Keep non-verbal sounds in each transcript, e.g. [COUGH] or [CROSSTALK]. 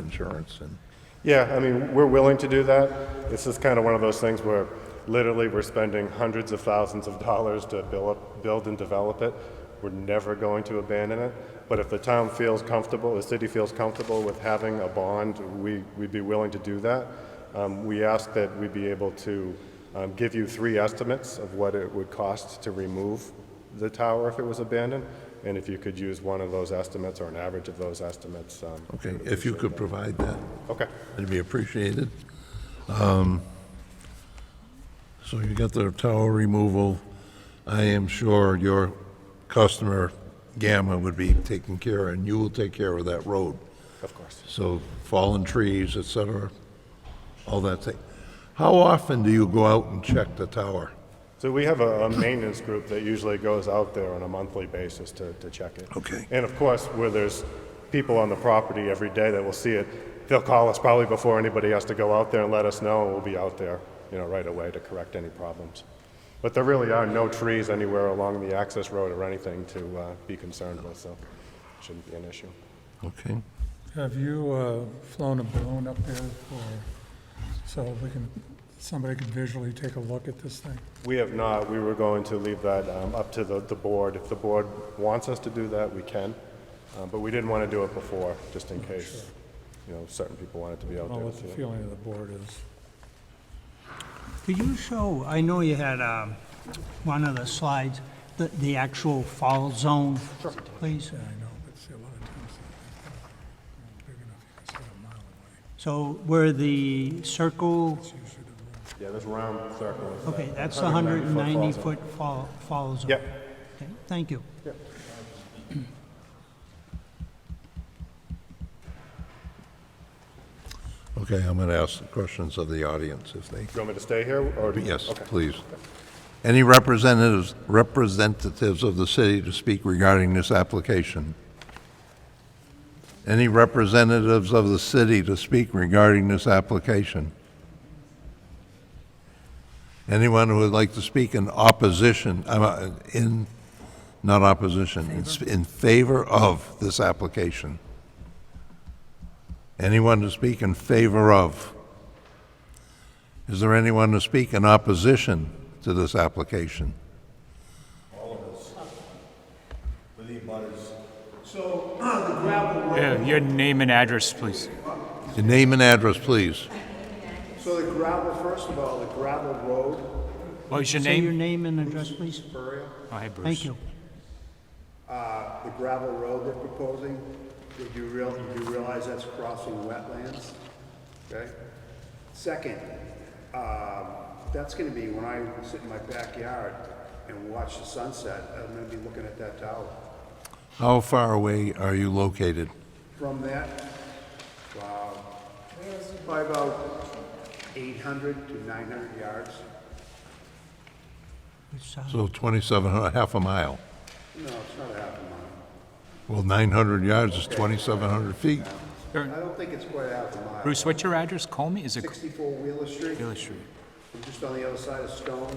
insurance and, Yeah, I mean, we're willing to do that. It's just kind of one of those things where literally we're spending hundreds of thousands of dollars to build, build and develop it. We're never going to abandon it. But if the town feels comfortable, the city feels comfortable with having a bond, we, we'd be willing to do that. Um, we ask that we be able to um, give you three estimates of what it would cost to remove the tower if it was abandoned. And if you could use one of those estimates or an average of those estimates. um, okay, if you could provide that, Okay. it'd be appreciated. Um, So you got the tower removal. I am sure your customer Gamma would be taken care, of, and you will take care of that road. Of course. So fallen trees, et cetera, all that thing. How often do you go out and check the tower? So we have a, a maintenance group that usually goes out there on a monthly basis to, to check it. Okay. And of course, where there's people on the property every day that will see it, they'll call us probably before anybody has to go out there and let us know, and we'll be out there, you know, right away to correct any problems. But there really are no trees anywhere along the access road or anything to, uh, be concerned with, so shouldn't be an issue. Okay, Have you uh, flown a balloon up there for, so we can, somebody can visually take a look at this thing? We have not, we were going to leave that um, up to the, the board. If the board wants us to do that, we can, Uh, but we didn't want to do it before, just in case, you know, certain people wanted to be I out don't know there. what the to see it. feeling of the board is. Could you show, I know you had um, one of the slides, the the actual fall zone, please? uh, I know, but see, a lot of times, it's not "Oh, big enough, you can see a mile away. So where the circle, Yeah, this round circle. is- okay, that's the 190 foot 190-foot fall fall zone. Yep. Okay, Thank you. okay, I'm going to ask the questions of the audience if they, You want me to stay here, or? do you- yes, Okay. please. Any representatives, representatives of the city to speak regarding this application? Any representatives of the city to speak regarding this application? Anyone who would like to speak in opposition, I'm, uh, in, not opposition, in s- in favor of this application? Anyone to speak in favor of? Is there anyone to speak in opposition to this application? Yeah, your name and address, please. Your name and address, please. So the gravel, first of all, the gravel road, What was your Say your name? name and address, please. Oh, hey, Bruce. Thank you. the gravel road they're proposing, did you real, you do realize that's crossing wetlands? Okay? Second, um, that's gonna be when I sit in my backyard and watch the sunset, I'm gonna be looking at that tower. How far away are you located? From that, wow, by about eight hundred to nine hundred yards, It's, uh, So 2,700, half a mile. no, it's not a half a mile. Well, 900 yards is 2,700 feet. I don't think it's quite a half a mile. Bruce, what's your address? Call me. Is it Sixty-four Wheeler Street, Bailey Street? I'm just on the other side of Stone,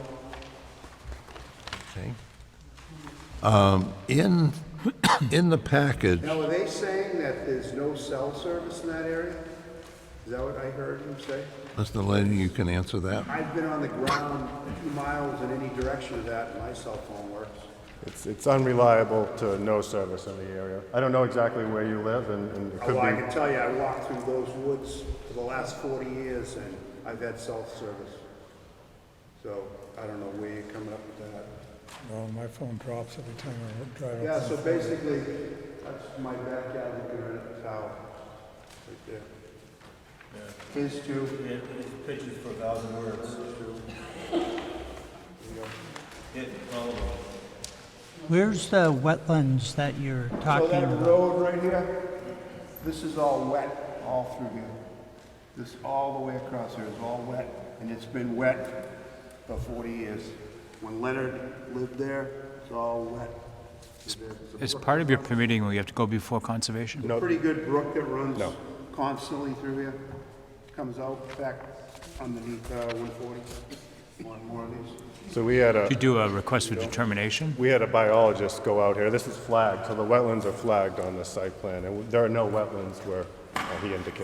Okay. Um, In, [COUGHS] in the package, Now, are they saying that there's no cell service in that area? Is that what I heard him say? Mr. Lanning, you can answer that. I've been on the ground a few miles in any direction of that, and my cell phone works. It's, it's unreliable to no service in the area. I don't know exactly where you live, and, and it could Well, I can be, tell you, I walked through those woods for the last 40 years, and I've had cell service. So I don't know where you're coming up with that. Well, my phone drops every time I drive Yeah, up. so basically, that's my backyard looking right at the tower, right there. His too. It, it pitches for a thousand words. It, well, Where's the wetlands that you're So talking that about? road right here, this is all wet all through here. This, all the way across here is all wet, and it's been wet for 40 years. When Leonard lived there, it's all wet. As part of your permitting, we have to go before conservation? There's a pretty good brook that runs constantly through here, comes out back underneath uh, 140. One more of these. so we had a. You do a request for determination? We had a biologist go out here. This is flagged, so the wetlands are flagged on the site plan, and there are no wetlands where uh, he indicated.